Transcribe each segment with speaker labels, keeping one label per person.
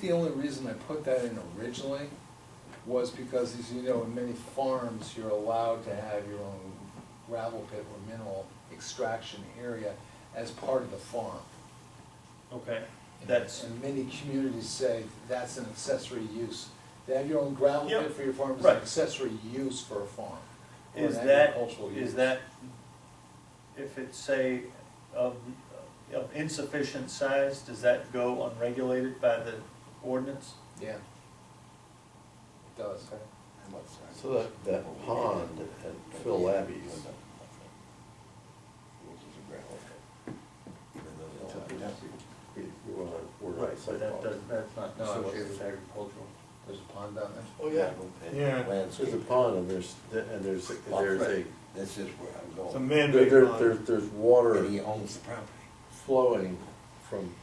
Speaker 1: The only reason I put that in originally was because, as you know, in many farms, you're allowed to have your own gravel pit or mineral extraction area as part of the farm.
Speaker 2: Okay, that's,
Speaker 1: And many communities say that's an accessory use. To have your own gravel
Speaker 2: Yeah,
Speaker 1: pit for your farm is an
Speaker 2: right.
Speaker 1: accessory use for a farm. or an
Speaker 2: is that,
Speaker 1: agricultural use.
Speaker 2: is that, if it's say, of, of insufficient size, does that go unregulated by the ordinance?
Speaker 1: Yeah. It does.
Speaker 3: So that, that pond at Phil Labby's, we, we wanna, we're not
Speaker 2: Right, so that
Speaker 3: sidewalks.
Speaker 2: does, that's not
Speaker 1: No, I wasn't.
Speaker 2: associated with agricultural.
Speaker 1: There's a pond down there.
Speaker 3: Oh, yeah,
Speaker 4: Yeah.
Speaker 3: there's a pond and there's, and there's, there's a,
Speaker 5: This is where I'm
Speaker 4: It's a
Speaker 5: going.
Speaker 3: there,
Speaker 4: man-made
Speaker 3: there,
Speaker 4: pond.
Speaker 3: there- there's
Speaker 5: But he
Speaker 3: water
Speaker 5: owns the property.
Speaker 3: flowing from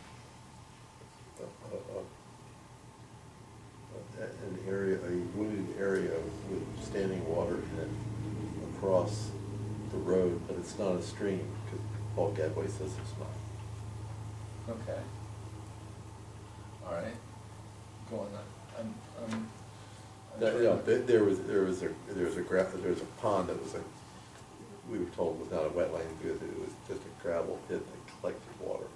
Speaker 3: a- a- a- a- an area, a wooded area with standing water in it across the road, but it's not a stream, because Paul Gadway says it's not.
Speaker 1: Okay. All right. Go on, I'm, I'm. I'm
Speaker 3: That,
Speaker 1: sure-
Speaker 3: yeah, there- there was, there was a, there was a gra, there was a pond that was a, we were told was not a wetland because it was just a gravel pit that collected water.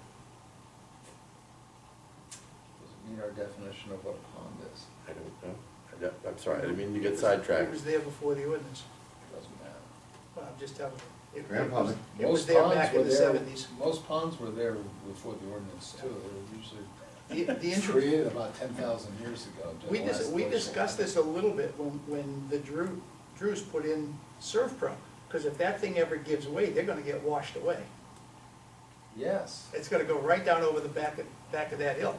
Speaker 1: Does it meet our definition of what a pond is?
Speaker 3: I don't know, I don't- I'm sorry, I didn't mean to get sidetracked.
Speaker 6: It was there before the ordinance,
Speaker 1: Doesn't matter.
Speaker 6: Well, I'm just telling you. It- it was-
Speaker 5: Grandfather.
Speaker 6: It was
Speaker 1: Most
Speaker 6: there
Speaker 1: ponds
Speaker 6: back
Speaker 1: were
Speaker 6: in the
Speaker 1: there-
Speaker 6: seventies.
Speaker 1: Most ponds were there before the ordinance too, they
Speaker 6: The,
Speaker 1: were
Speaker 6: the
Speaker 1: usually
Speaker 6: interest,
Speaker 1: created about ten thousand years ago. during
Speaker 6: we
Speaker 1: the
Speaker 6: dis,
Speaker 1: last
Speaker 6: we
Speaker 1: glacial
Speaker 6: discussed this a little bit when, when the Drew, Drews put in Surf Pro. Because if that thing ever gives way, they're gonna get washed away.
Speaker 1: time. Yes,
Speaker 6: It's gonna go right down over the back of, back of that hill.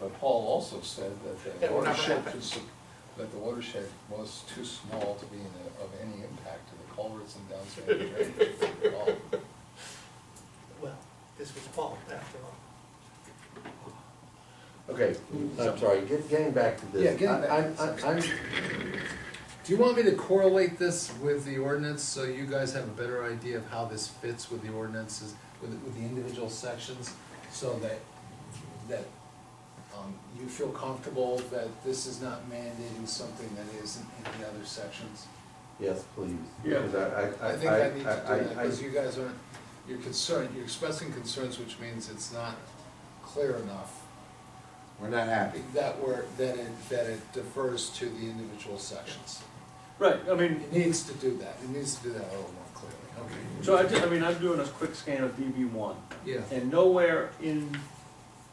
Speaker 1: but Paul also said that the
Speaker 6: That will never
Speaker 1: watershed,
Speaker 6: happen.
Speaker 1: could sup- that the watershed was too small to be in a- of any impact to the culverts and downstream drainage at all.
Speaker 6: Well, this was Paul, after all.
Speaker 3: Okay, I'm sorry, get- getting back to this.
Speaker 1: Yeah, getting
Speaker 3: I-
Speaker 1: back
Speaker 3: I'm-
Speaker 1: to this,
Speaker 3: I'm, I'm,
Speaker 7: Do you want me to correlate this with the ordinance so you guys have a better idea of how this fits with the ordinances, with, with the individual sections? So that, that, um, you feel comfortable that this is not mandating something that isn't in the other sections?
Speaker 3: yes, please.
Speaker 1: Yeah.
Speaker 3: Because I, I, I.
Speaker 7: I think I need to do
Speaker 3: I-
Speaker 7: that,
Speaker 3: I-
Speaker 7: because you guys aren't, you're concerned, you're expressing concerns, which means it's not clear enough
Speaker 5: We're not happy.
Speaker 7: that we're, that it, that it defers to the individual sections.
Speaker 2: Right, I mean,
Speaker 7: It needs to do that, it needs to do that a little more clearly, okay.
Speaker 2: so I, ju- I mean, I'm doing a quick scan of DB one.
Speaker 7: Yeah.
Speaker 2: And nowhere in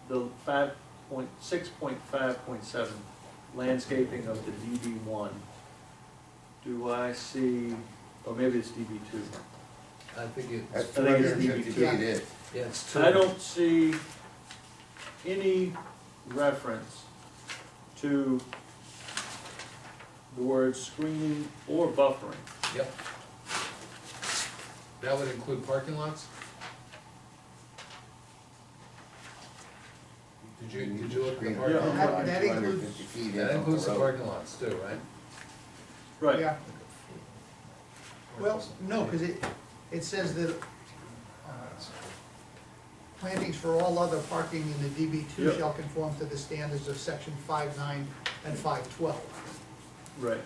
Speaker 2: the five point, six point five point seven landscaping of the DB one do I see, or maybe it's DB two.
Speaker 7: I think
Speaker 5: That's
Speaker 7: it's,
Speaker 2: I
Speaker 5: two
Speaker 2: think it's
Speaker 5: hundred and fifty feet
Speaker 2: DVT.
Speaker 5: in.
Speaker 7: yeah, it's true.
Speaker 2: I don't see any reference to the words screening or buffering.
Speaker 7: Yep. That would include parking lots? Did you, did you look at the parking
Speaker 2: Yeah.
Speaker 7: lot?
Speaker 6: That- that includes-
Speaker 5: 250 feet in
Speaker 7: That
Speaker 5: off
Speaker 7: includes the
Speaker 5: road.
Speaker 7: parking lots too, right?
Speaker 2: Right,
Speaker 6: Yeah. Well, no, because it, it says that uh, plantings for all other parking in the DB two
Speaker 2: Yeah.
Speaker 6: shall conform to the standards of section five nine and five twelve.
Speaker 2: right.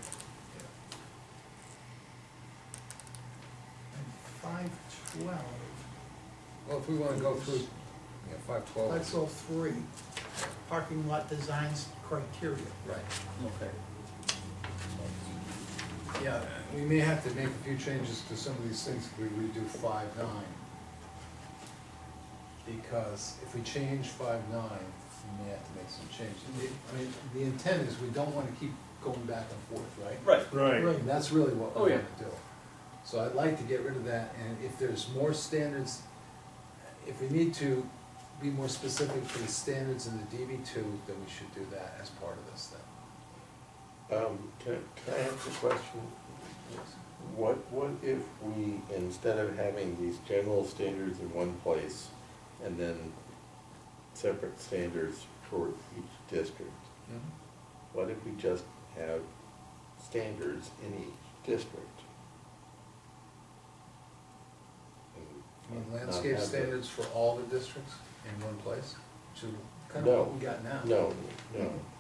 Speaker 6: Five twelve,
Speaker 7: Well, if we wanna go through, yeah, five
Speaker 6: five
Speaker 7: twelve,
Speaker 6: twelve three, parking lot designs criteria.
Speaker 7: right.
Speaker 2: Okay.
Speaker 7: Yeah, we may have to make a few changes to some of these things if we redo five nine. Because if we change five nine, we may have to make some changes. The- I mean, the intent is we don't wanna keep going back and forth, right?
Speaker 2: Right,
Speaker 4: Right,
Speaker 7: And that's really what
Speaker 2: Oh,
Speaker 7: we
Speaker 2: yeah.
Speaker 7: wanna do. So I'd like to get rid of that, and if there's more standards, if we need to be more specific for the standards in the DB two, then we should do that as part of this then.
Speaker 3: Um, can, can I ask a question? What, what if we, instead of having these general standards in one place and then separate standards for each district, what if we just have standards in each district?
Speaker 7: I mean,
Speaker 3: And not
Speaker 7: landscape
Speaker 3: have the-
Speaker 7: standards for all the districts in one place, should kind of
Speaker 3: No.
Speaker 7: what we got now.
Speaker 3: No, no.